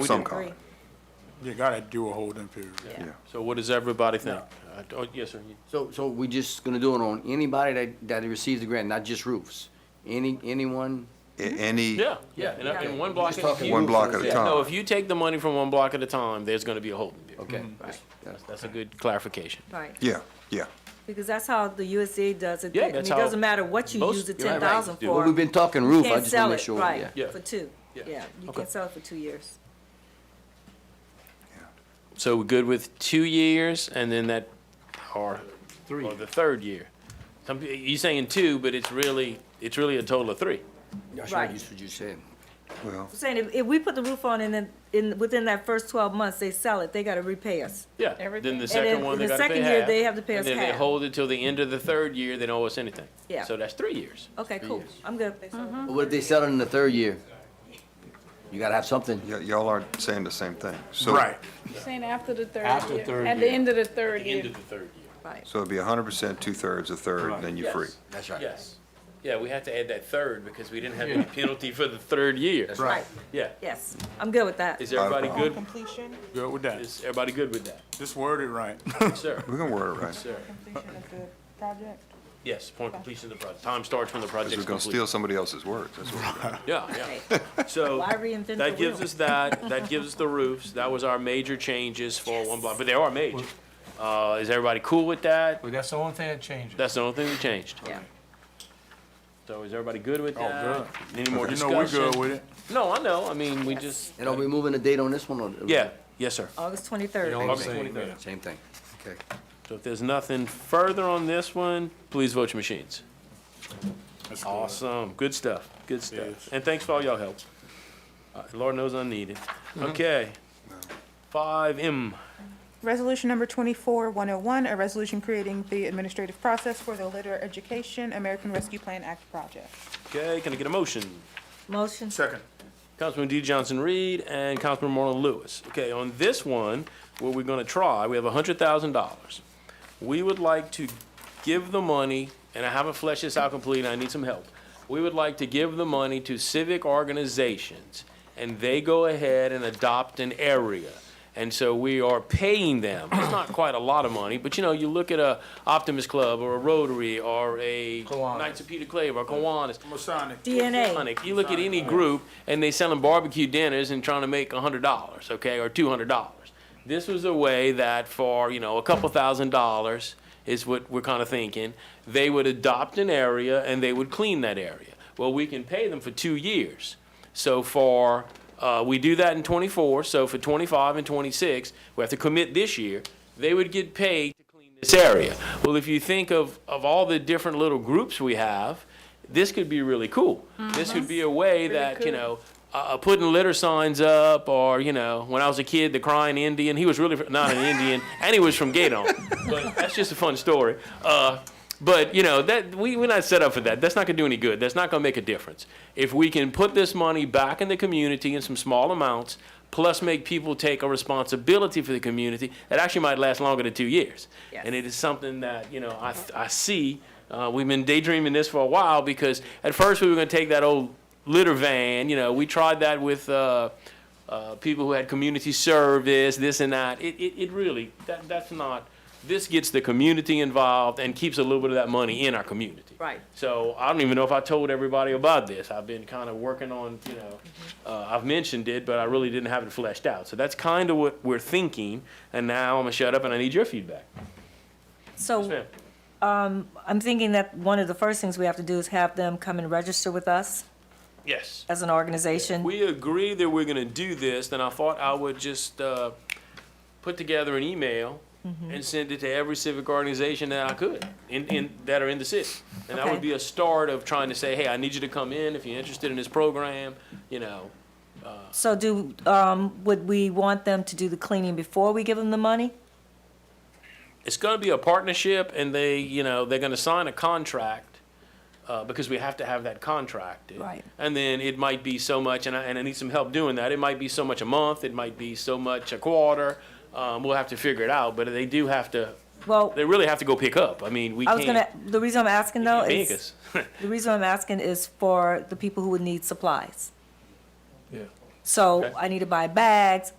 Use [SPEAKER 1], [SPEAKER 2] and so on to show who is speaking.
[SPEAKER 1] We
[SPEAKER 2] some
[SPEAKER 1] did.
[SPEAKER 2] comment.
[SPEAKER 3] You gotta do a holding period.
[SPEAKER 2] Yeah.
[SPEAKER 4] So what does everybody think? Uh, oh, Yes, sir. you-
[SPEAKER 5] So, so we just gonna do it on anybody that, that receives the grant, not just roofs? Any, anyone?
[SPEAKER 2] A- Any,
[SPEAKER 4] Mm-hmm. Yeah, yeah, and, uh, and one block
[SPEAKER 5] Just
[SPEAKER 4] at a
[SPEAKER 5] talking
[SPEAKER 4] time.
[SPEAKER 2] One
[SPEAKER 5] roofs
[SPEAKER 2] block
[SPEAKER 5] and
[SPEAKER 2] at a
[SPEAKER 5] stuff.
[SPEAKER 2] time.
[SPEAKER 4] No, if you take the money from one block at a time, there's gonna be a holding period.
[SPEAKER 5] Okay,
[SPEAKER 2] Mm-hmm.
[SPEAKER 5] right.
[SPEAKER 4] That's- That's a good clarification.
[SPEAKER 1] Right,
[SPEAKER 2] yeah, yeah.
[SPEAKER 1] because that's how the USDA does it.
[SPEAKER 4] Yeah,
[SPEAKER 1] And
[SPEAKER 4] that's
[SPEAKER 1] It
[SPEAKER 4] how
[SPEAKER 1] doesn't matter what you
[SPEAKER 4] most-
[SPEAKER 1] use the
[SPEAKER 4] you're
[SPEAKER 1] ten
[SPEAKER 4] right,
[SPEAKER 1] thousand
[SPEAKER 4] right. Do-
[SPEAKER 1] for.
[SPEAKER 5] Well, we've been talking
[SPEAKER 1] you
[SPEAKER 5] roof, I
[SPEAKER 1] can't
[SPEAKER 5] just
[SPEAKER 1] sell
[SPEAKER 5] wanna make
[SPEAKER 1] it,
[SPEAKER 5] sure,
[SPEAKER 1] right,
[SPEAKER 5] yeah.
[SPEAKER 4] Yeah.
[SPEAKER 1] For two,
[SPEAKER 4] Yeah.
[SPEAKER 1] yeah, you
[SPEAKER 4] Okay.
[SPEAKER 1] can sell it for two years.
[SPEAKER 2] Oh.
[SPEAKER 4] So we're good with two years and then that, or, or the third year? Some, peo- you're saying two, but it's really, it's really a total of three.
[SPEAKER 5] That's
[SPEAKER 1] Right.
[SPEAKER 5] what you- that's what you said.
[SPEAKER 2] Well,
[SPEAKER 1] I'm saying, if, if we put the roof on and then, in, within that first twelve months, they sell it, they gotta repay us.
[SPEAKER 4] Yeah, then
[SPEAKER 6] Everything.
[SPEAKER 4] the
[SPEAKER 6] And
[SPEAKER 4] second
[SPEAKER 1] then
[SPEAKER 4] one, they
[SPEAKER 1] the
[SPEAKER 4] gotta pay
[SPEAKER 1] second year,
[SPEAKER 4] half,
[SPEAKER 1] they have to pay us
[SPEAKER 4] And then they
[SPEAKER 1] half.
[SPEAKER 4] hold it till the end of the third year, they don't owe us anything.
[SPEAKER 1] Yeah.
[SPEAKER 4] So that's three years.
[SPEAKER 1] Okay,
[SPEAKER 4] Three
[SPEAKER 1] cool,
[SPEAKER 4] years.
[SPEAKER 1] I'm good.
[SPEAKER 5] But what if they sell it in the third year? You gotta have something.
[SPEAKER 2] y- y'all are saying the same thing. So-
[SPEAKER 3] Right.
[SPEAKER 6] Saying after the third year.
[SPEAKER 4] After third
[SPEAKER 6] At the
[SPEAKER 4] year.
[SPEAKER 6] end of the third year.
[SPEAKER 4] the third year.
[SPEAKER 1] Right,
[SPEAKER 2] So it'd be hundred percent, two-thirds, a third,
[SPEAKER 3] Right.
[SPEAKER 2] then you're free.
[SPEAKER 5] That's right.
[SPEAKER 4] Yes. Yeah, we have to add that third because we didn't have any penalty for the third year.
[SPEAKER 1] right,
[SPEAKER 4] Yeah.
[SPEAKER 1] yes, I'm good with that.
[SPEAKER 4] Is everybody
[SPEAKER 2] problem.
[SPEAKER 4] good?
[SPEAKER 6] Completion.
[SPEAKER 3] Good with that.
[SPEAKER 4] Is everybody good with that?
[SPEAKER 3] Just word it right.
[SPEAKER 4] Sir?
[SPEAKER 2] We're gonna word it right.
[SPEAKER 4] Sir?
[SPEAKER 6] Completion of the project.
[SPEAKER 4] Yes, upon completion of the project. Time starts when the
[SPEAKER 2] Because
[SPEAKER 4] project's
[SPEAKER 2] we're gonna
[SPEAKER 4] complete.
[SPEAKER 2] steal somebody else's words. That's what we're doing.
[SPEAKER 4] Yeah,
[SPEAKER 1] Okay.
[SPEAKER 4] yeah. So
[SPEAKER 1] Why reinvent the
[SPEAKER 4] that gives
[SPEAKER 1] wheel?
[SPEAKER 4] us that, that gives us the roofs. That was our major changes for one block, but they are major. Uh, is everybody cool with that?
[SPEAKER 7] Well, that's the only thing that changes.
[SPEAKER 4] That's the only thing that changed.
[SPEAKER 1] Yeah.
[SPEAKER 4] So is everybody good with
[SPEAKER 3] Oh,
[SPEAKER 4] that? Any more
[SPEAKER 3] You know, we
[SPEAKER 4] discussion?
[SPEAKER 3] good with it.
[SPEAKER 4] No, I know. I mean, we just,
[SPEAKER 5] And are we moving the date on this one or?
[SPEAKER 4] yeah, yes, sir.
[SPEAKER 1] August twenty-third.
[SPEAKER 7] You know what I'm
[SPEAKER 4] Okay.
[SPEAKER 7] saying? yeah.
[SPEAKER 5] Same thing. Okay.
[SPEAKER 4] So if there's nothing further on this one, please vote your machines.
[SPEAKER 3] That's cool.
[SPEAKER 4] Awesome, good stuff, good
[SPEAKER 3] Yes.
[SPEAKER 4] stuff. And thanks for all y'all help. Uh, Lord knows I need it. Okay. Five M,
[SPEAKER 6] Resolution number twenty-four one oh one, a resolution creating the administrative process for the Litter Education American Rescue Plan Act project.
[SPEAKER 4] okay, can I get a motion?
[SPEAKER 1] Motion,
[SPEAKER 3] Second.
[SPEAKER 4] Councilman D. Johnson Reed and Councilman Marlon Lewis. Okay, on this one, what we're gonna try, we have hundred thousand dollars. We would like to give the money, and I haven't fleshed this out completely, I need some help. We would like to give the money to civic organizations, and they go ahead and adopt an area. And so we are paying them, it's not quite a lot of money, but you know, you look at a Optimist Club, or a Rotary, or a
[SPEAKER 7] Kiwanis.
[SPEAKER 4] Knights of Peter Clave, or Kiwanis.
[SPEAKER 3] Masonic.
[SPEAKER 1] DNA,
[SPEAKER 4] Sonic, you look at any group and they selling barbecue dinners and trying to make a hundred dollars, okay, or two hundred dollars. This was a way that for, you know, a couple thousand dollars is what we're kind of thinking, they would adopt an area and they would clean that area. Well, we can pay them for two years. So for, uh, we do that in twenty-four, so for twenty-five and twenty-six, we have to commit this year, they would get paid to clean this area. Well, if you think of, of all the different little groups we have, this could be really cool. This could be a way that, you know, uh, putting litter signs up or, you know, when I was a kid, the crying Indian, he was really fr- not an Indian and he was from Gaydon. but that's just a fun story. Uh, but, you know, that, we, we're not set up for that. That's not going to do any good. That's not going to make a difference. If we can put this money back in the community in some small amounts, plus make people take a responsibility for the community that actually might last longer than two years.
[SPEAKER 1] Yes.
[SPEAKER 4] And it is something that, you know, I, I see, uh, we've been daydreaming this for a while because at first we were gonna take that old litter van, you know, we tried that with, uh, uh, people who had community service, this and that. It, it, it really, that, that's not, this gets the community involved and keeps a little bit of that money in our community.
[SPEAKER 1] Right.
[SPEAKER 4] So I don't even know if I told everybody about this. I've been kind of working on, you know, uh, I've mentioned it, but I really didn't have it fleshed out. So that's kind of what we're thinking. And now I'm gonna shut up and I need your feedback. Yes,
[SPEAKER 1] so
[SPEAKER 4] ma'am.
[SPEAKER 1] I'm thinking that one of the first things we have to do is have them come and register with us
[SPEAKER 4] Yes.
[SPEAKER 1] as an organization.
[SPEAKER 4] We agree that we're gonna do this, then I thought I would just, uh, put together an email and send it to every civic organization that I could, in, in, that are in the city. And that
[SPEAKER 1] Okay.
[SPEAKER 4] would be a start of trying to say, hey, I need you to come in if you're interested in this program, you know.
[SPEAKER 1] So do, um, would we want them to do the cleaning before we give them the money?
[SPEAKER 4] It's gonna be a partnership and they, you know, they're gonna sign a contract, uh, because we have to have that contract.
[SPEAKER 1] Right.
[SPEAKER 4] And then it might be so much, and I, and I need some help doing that. It might be so much a month, it might be so much a quarter. Um, we'll have to figure it out, but they do have to
[SPEAKER 1] Well,
[SPEAKER 4] they really have to go pick up. I mean, we
[SPEAKER 1] Oh. I
[SPEAKER 4] can't.
[SPEAKER 1] was gonna, the reason I'm asking though
[SPEAKER 4] you can't make
[SPEAKER 1] is,
[SPEAKER 4] us.
[SPEAKER 1] the reason I'm asking is for the people who would need supplies. So
[SPEAKER 4] Okay.
[SPEAKER 1] I need to buy bags,